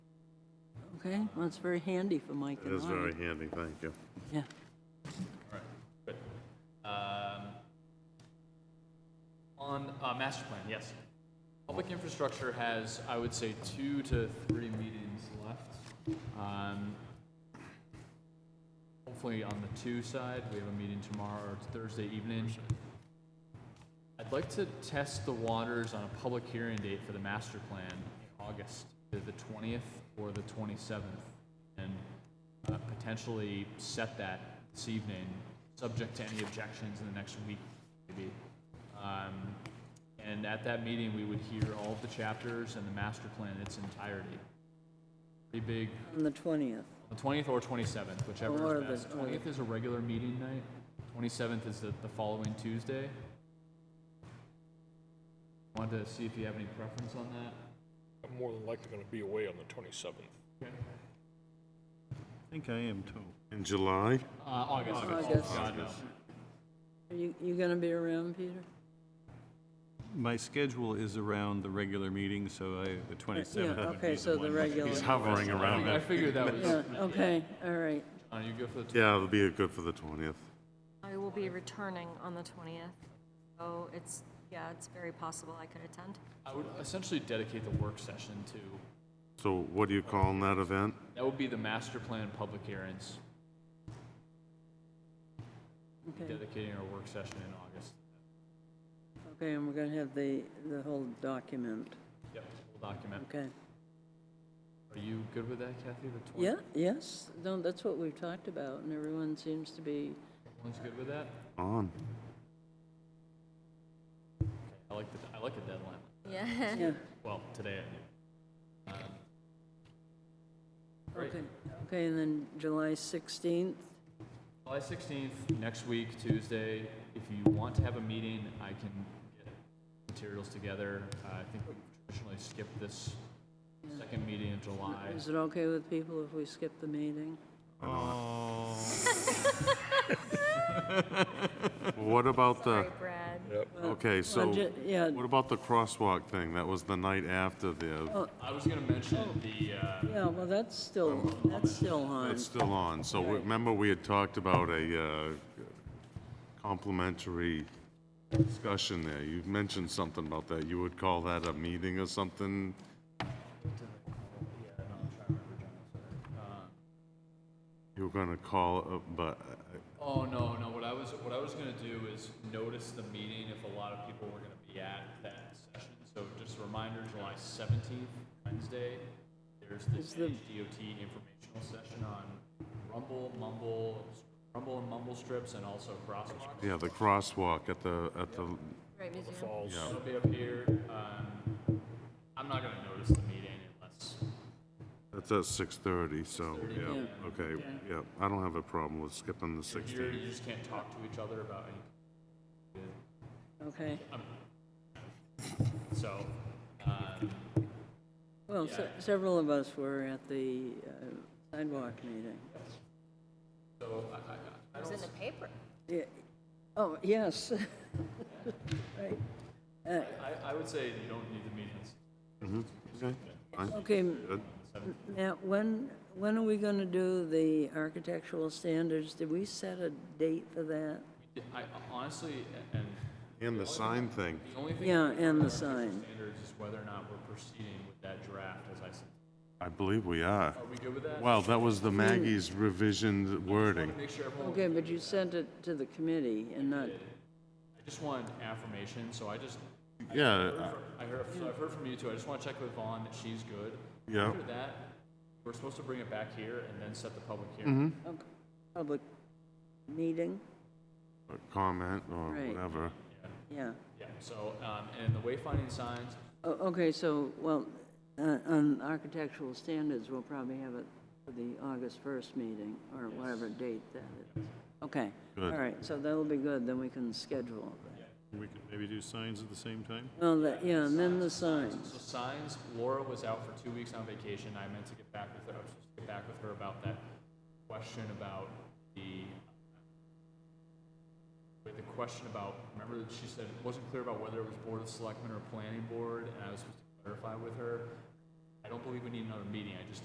Okay, well, it's very handy for Mike It and I. is very handy, thank you. Yeah, Good. Um, On uh, master plan, yes. Public infrastructure has, I would say, two to three meetings left. Um, Hopefully on the two side, we have a meeting tomorrow or Thursday evening. I'd like to test the waters on a public hearing date for the master plan in August, either the 20th or the 27th, and uh, potentially set that this evening, subject to any objections in the next week, maybe. Um, And at that meeting, we would hear all of the chapters and the master plan in its entirety. Pretty big, on the 20th. the 20th or 27th, Or whichever the- is best. or the- 20th is a regular meeting night, 27th is the the following Tuesday. Wanted to see if you have any preference on that. I'm more than likely going to be away on the 27th. I think I am too. In July, Uh, August. August. God, no. Are you, you gonna be around, Peter? My schedule is around the regular meeting, so I, the 27th Yeah, would be okay, the so the one. regular, he's hovering around I it. figured that was, yeah, okay, all right. uh, you go for the, tw- Yeah, it'll be good for the 20th. I will be returning on the 20th, so it's, yeah, it's very possible I could attend. I would essentially dedicate the work session to, So what do you call that event? that would be the master plan public hearings, Okay, dedicating our work session in August. okay, and we're gonna have the, the whole document, Yep. We'll document. okay? Are you good with that, Kathy, the 20th? Yeah, yes, no, that's what we've talked about, and everyone seems to be, Everyone's good with that? On. I like the, I like a deadline. Yeah. yeah, Well, today I do. okay. Okay, and then July 16th, July 16th, next week, Tuesday, if you want to have a meeting, I can get materials together. Uh, I think we traditionally skip this second meeting in July. is it okay with people if we skip the meeting? What about the, Sorry, Brad. okay, so Well, ju- yeah. what about the crosswalk thing? That was the night after the, I was gonna mention the, uh, Yeah, well, that's still, that's still on. it's still on. So remember, we had talked about a uh, complimentary discussion there. You mentioned something about that. You would call that a meeting or something? You were gonna call, it, but uh, oh, no, no, what I was, what I was gonna do is notice the meeting if a lot of people were gonna be at that session. So just a reminder, July 17th, Wednesday, there's Is this the- DOT informational session on rumble, mumble, rumble and mumble strips and also crosswalks. Yeah, the crosswalk at the, at the, Right, museum. It'll be up here. Um, I'm not gonna notice the meeting unless, that's at six thirty, so, yeah, okay, yeah. I don't have a problem with skipping the if you're, sixteen. you just can't talk to each other about any. Okay, So, um, well, se- several of us were at the uh, sidewalk meeting. so I, I, It was in the paper. Yeah. Oh, yes. Right. I, I would say you don't need the meetings. Okay, fine. Okay, now, when, when are we going to do the architectural standards? Did we set a date for that? I honestly, and And the sign thing, the only thing. Yeah, that and the our sign. Standards is whether or not we're proceeding with that draft as I said. I believe we are. Are we good with that? Well, that was the Maggie's revision wording. Make sure everyone, Okay, but you sent it to the committee and not, I just want affirmation, so I just, Yeah, uh, I heard, so I've heard from you too. I just wanna check with Vaughn that she's good. yeah, After that, we're supposed to bring it back here and then set the public hearing. okay, public meeting? or comment or Right. whatever. Yeah. Yeah, so, um, and the wayfinding signs, O- Oh, Okay, so, well, uh, on architectural standards, we'll probably have it for the August 1st meeting, or whatever date that is. Okay, all Good. right, so that'll be good, then we can schedule that. We could maybe do signs at the same time? Oh, that, yeah, and then the signs. So signs, Laura was out for two weeks on vacation. I meant to get back with her. I was supposed to get back with her about that question about the with the question about remember that she said it wasn't clear about whether it was board of selectmen or planning board, and I was supposed to clarify with her. I don't believe we need another meeting. I just